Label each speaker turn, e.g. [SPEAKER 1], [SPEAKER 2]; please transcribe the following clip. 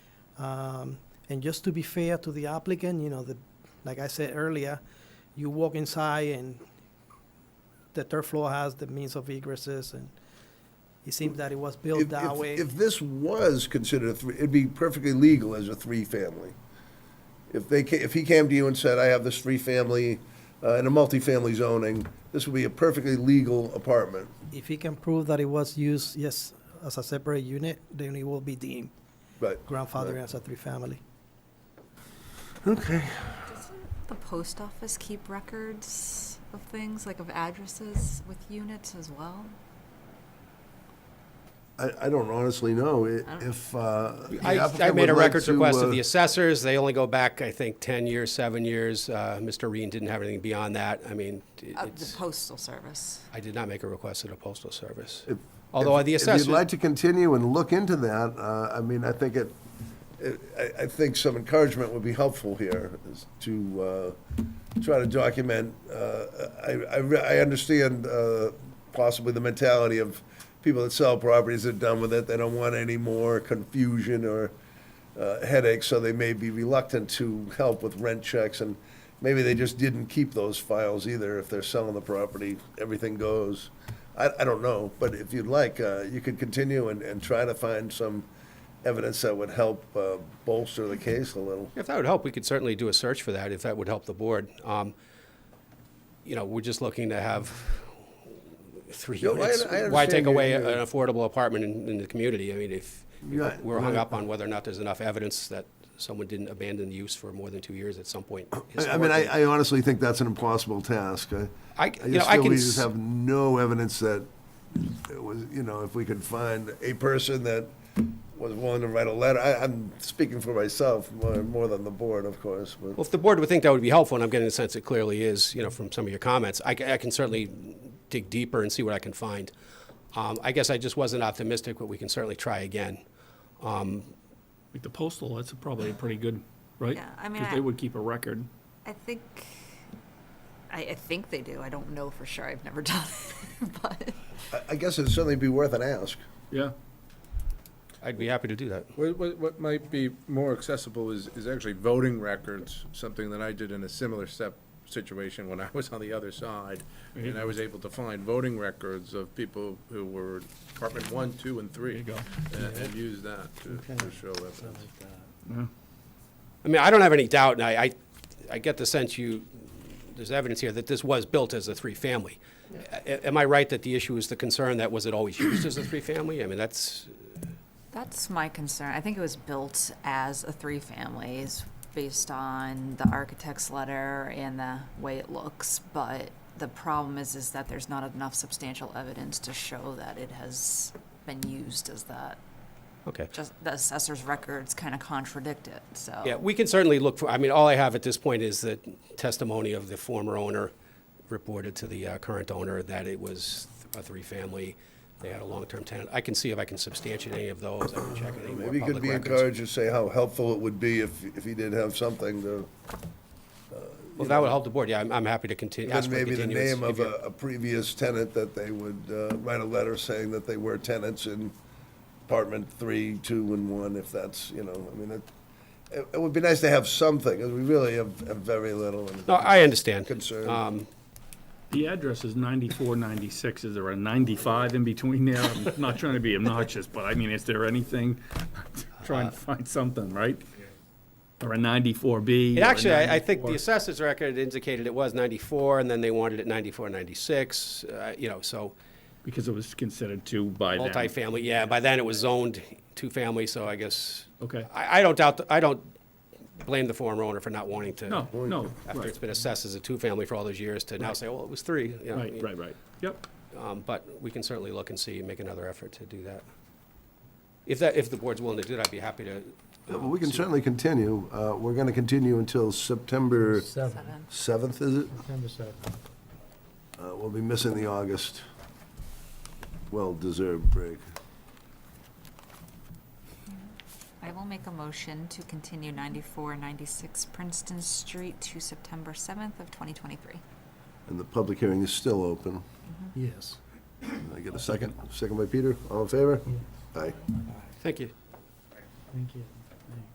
[SPEAKER 1] Um, And just to be fair to the applicant, you know, the, like I said earlier, you walk inside and the third floor has the means of egresses and it seems that it was built
[SPEAKER 2] If-
[SPEAKER 1] that
[SPEAKER 2] if-
[SPEAKER 1] way.
[SPEAKER 2] If this was considered a three, it'd be perfectly legal as a three-family. If they, ca- if he came to you and said, I have this three-family uh, in a multifamily zoning, this would be a perfectly legal apartment.
[SPEAKER 1] If he can prove that it was used, yes, as a separate unit, then it will be deemed
[SPEAKER 2] But
[SPEAKER 1] grandfathered as a three-family.
[SPEAKER 3] Okay.
[SPEAKER 4] Doesn't the post office keep records of things, like of addresses with units as well?
[SPEAKER 2] I, I don't honestly know i-
[SPEAKER 4] I don't-
[SPEAKER 2] if. uh, the
[SPEAKER 3] I, I
[SPEAKER 2] applicant
[SPEAKER 3] made a
[SPEAKER 2] would like
[SPEAKER 3] records
[SPEAKER 2] to,
[SPEAKER 3] request of
[SPEAKER 2] uh,
[SPEAKER 3] the assessors. They only go back, I think, 10 years, seven years. Uh, Mr. Reen didn't have anything beyond that. I mean, it-
[SPEAKER 4] Of the
[SPEAKER 3] it's,
[SPEAKER 4] postal service.
[SPEAKER 3] I did not make a request to the postal service.
[SPEAKER 2] if-
[SPEAKER 3] Although
[SPEAKER 2] if-
[SPEAKER 3] the
[SPEAKER 2] If
[SPEAKER 3] assessors,
[SPEAKER 2] you'd like to continue and look into that, uh, I mean, I think it, it- I, I think some encouragement would be helpful here is to uh, try to document. uh, I, I re- I understand uh, possibly the mentality of people that sell properties, they're done with it, they don't want any more confusion or uh, headaches, so they may be reluctant to help with rent checks, and maybe they just didn't keep those files either. If they're selling the property, everything goes. I, I don't know, but if you'd like, uh, you could continue and, and try to find some evidence that would help uh, bolster the case a little.
[SPEAKER 3] if that would help, we could certainly do a search for that, if that would help the board. Um, You know, we're just looking to have three
[SPEAKER 2] No, I-
[SPEAKER 3] units.
[SPEAKER 2] I understand
[SPEAKER 3] Why take
[SPEAKER 2] your-
[SPEAKER 3] away
[SPEAKER 2] your-
[SPEAKER 3] an affordable apartment in, in the community? I mean, if
[SPEAKER 2] Yeah,
[SPEAKER 3] we're hung
[SPEAKER 2] yeah.
[SPEAKER 3] up on whether or not there's enough evidence that someone didn't abandon the use for more than two years at some point.
[SPEAKER 2] I, I mean,
[SPEAKER 3] historically.
[SPEAKER 2] I, I honestly think that's an impossible task. I,
[SPEAKER 3] I-
[SPEAKER 2] I
[SPEAKER 3] you know,
[SPEAKER 2] just
[SPEAKER 3] I
[SPEAKER 2] feel
[SPEAKER 3] can
[SPEAKER 2] we
[SPEAKER 3] s-
[SPEAKER 2] just have no evidence that it was, you know, if we could find a person that was willing to write a letter. I, I'm speaking for myself more, more than the board, of course. But
[SPEAKER 3] Well, if the board would think that would be helpful, and I'm getting the sense it clearly is, you know, from some of your comments, I, ca- I can certainly dig deeper and see what I can find. Um, I guess I just wasn't optimistic, but we can certainly try again.
[SPEAKER 5] Like the postal, that's probably pretty good, right?
[SPEAKER 4] Yeah, I mean,
[SPEAKER 5] Because
[SPEAKER 4] I-
[SPEAKER 5] they would keep a record.
[SPEAKER 4] I think, I, I think they do. I don't know for sure. I've never done it, but.
[SPEAKER 2] I, I guess it'd certainly be worth an ask.
[SPEAKER 5] Yeah.
[SPEAKER 3] I'd be happy to do that.
[SPEAKER 6] What, what, what might be more accessible is, is actually voting records, something that I did in a similar step situation when I was on the other side. And I was able to find voting records of people who were Department One, Two, and Three.
[SPEAKER 5] There
[SPEAKER 6] And, and use that to, to show evidence.
[SPEAKER 3] I mean, I don't have any doubt, and I, I, I get the sense you, there's evidence here that this was built as a three-family. A- Am I right that the issue is the concern that was it always used as a three-family? I mean, that's,
[SPEAKER 4] That's my concern. I think it was built as a three families based on the architect's letter and the way it looks, but the problem is, is that there's not enough substantial evidence to show that it has been used as that.
[SPEAKER 3] okay.
[SPEAKER 4] Just the assessor's records kind of contradict it, so.
[SPEAKER 3] Yeah, we can certainly look for, I mean, all I have at this point is the testimony of the former owner reported to the uh, current owner that it was a three-family, they had a long-term tenant. I can see if I can substantiate any of those, I can check any more
[SPEAKER 2] Maybe you could
[SPEAKER 3] public
[SPEAKER 2] be
[SPEAKER 3] records.
[SPEAKER 2] encouraged to say how helpful it would be if, if he did have something to,
[SPEAKER 3] Well, that would help the board, yeah, I'm, I'm happy to continue,
[SPEAKER 2] then
[SPEAKER 3] ask for a
[SPEAKER 2] maybe the
[SPEAKER 3] continuance.
[SPEAKER 2] name
[SPEAKER 3] if
[SPEAKER 2] of
[SPEAKER 3] you're-
[SPEAKER 2] a, a previous tenant that they would uh, write a letter saying that they were tenants in apartment three, two, and one, if that's, you know, I mean, it, it- it would be nice to have something, 'cause we really have, have very little. and-
[SPEAKER 3] No, I understand.
[SPEAKER 2] Concern.
[SPEAKER 3] Um,
[SPEAKER 5] The address is ninety-four, ninety-six. Is there a ninety-five in between there? I'm not trying to be obnoxious, but I mean, is there anything? Trying
[SPEAKER 3] Uh,
[SPEAKER 5] to find something, right? Or a ninety-four B?
[SPEAKER 3] And actually, I, I think the assessor's record indicated it was ninety-four, and then they wanted it ninety-four, ninety-six, uh, you know, so
[SPEAKER 5] Because it was considered two by them.
[SPEAKER 3] multifamily, yeah, by then it was zoned two-family, so I guess.
[SPEAKER 5] Okay.
[SPEAKER 3] I, I don't doubt, th- I don't blame the former owner for not wanting to.
[SPEAKER 5] No, no,
[SPEAKER 3] After it's
[SPEAKER 5] right,
[SPEAKER 3] been assessed as a two-family for all those years, to now say, well, it was three. you know,
[SPEAKER 5] right, right, right. Yep.
[SPEAKER 3] Um, but we can certainly look and see, and make another effort to do that. If that, if the board's willing to do it, I'd be happy to.
[SPEAKER 2] Yeah, well, We can certainly continue. Uh, We're going to continue until September
[SPEAKER 4] Seven.
[SPEAKER 2] 7th, is it?
[SPEAKER 7] September seventh.
[SPEAKER 2] Uh, We'll be missing the August well-deserved break.
[SPEAKER 4] I will make a motion to continue ninety-four, ninety-six Princeton Street to September seventh of twenty twenty-three.
[SPEAKER 2] And the public hearing is still open.
[SPEAKER 7] Yes.
[SPEAKER 2] I get a second? Second by Peter. All in favor? Aye.
[SPEAKER 3] Thank you.
[SPEAKER 7] Thank you.